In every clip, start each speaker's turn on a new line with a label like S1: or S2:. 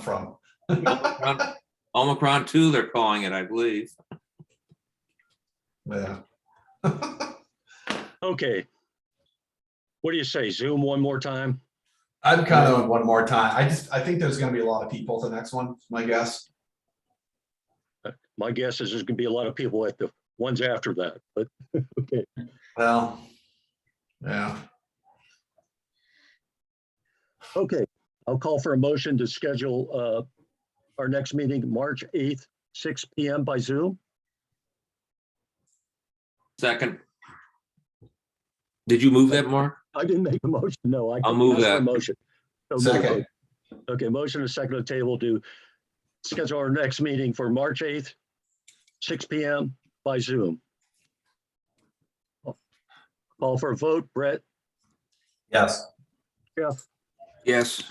S1: from.
S2: Omicron- Omicron two, they're calling it, I believe.
S1: Yeah.
S3: Okay. What do you say? Zoom one more time?
S1: I'm kind of one more time. I just, I think there's gonna be a lot of people at the next one, my guess.
S3: My guess is there's gonna be a lot of people at the ones after that, but, okay.
S1: Well. Yeah,
S3: Okay, I'll call for a motion to schedule uh, our next meeting, March 8th, six PM by Zoom.
S2: Second. Did you move that, Mark?
S3: I didn't make a motion, no. I
S2: I'll move
S3: asked for a
S2: that.
S3: Motion. So moved.
S1: Second.
S3: Okay, motion and second on the table to schedule our next meeting for March 8th, six PM by Zoom. Call for a vote, Brett,
S1: yes.
S3: Jeff,
S2: Yes.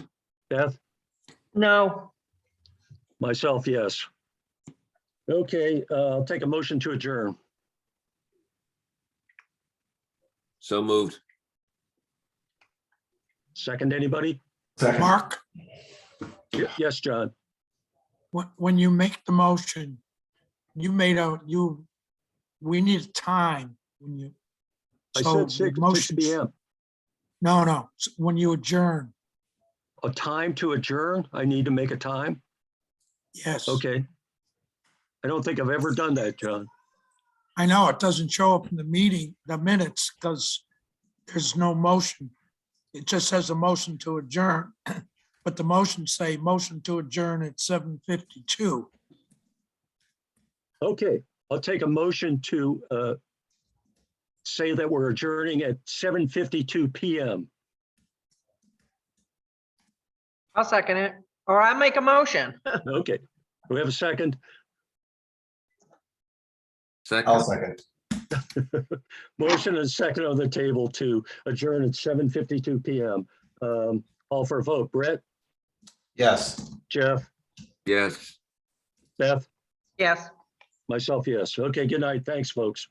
S3: Beth?
S4: No,
S3: Myself, yes. Okay, uh, I'll take a motion to adjourn.
S2: So moved.
S3: Second, anybody?
S1: Second,
S5: Mark,
S3: Y- Yes, John.
S5: wh- when you make the motion, you made a, you, we need time when you.
S3: I
S5: so
S3: said
S5: the
S3: six, six
S5: motion-
S3: PM.
S5: No, no, s- when you adjourn,
S3: A time to adjourn? I need to make a time?
S5: yes.
S3: Okay. I don't think I've ever done that, John.
S5: I know it doesn't show up in the meeting, the minutes, because there's no motion. It just says a motion to adjourn, but the motions say motion to adjourn at seven fifty-two.
S3: Okay, I'll take a motion to uh, say that we're adjourning at 7:52 PM.
S4: I'll second it, or I make a motion.
S3: Okay, we have a second?
S1: I'll
S2: Second.
S1: second.
S3: Motion and second on the table to adjourn at 7:52 PM. Um, All for a vote. Brett,
S1: Yes,
S3: Jeff?
S2: Yes.
S3: Beth,
S4: Yes.
S3: myself, yes. Okay, good night. Thanks, folks.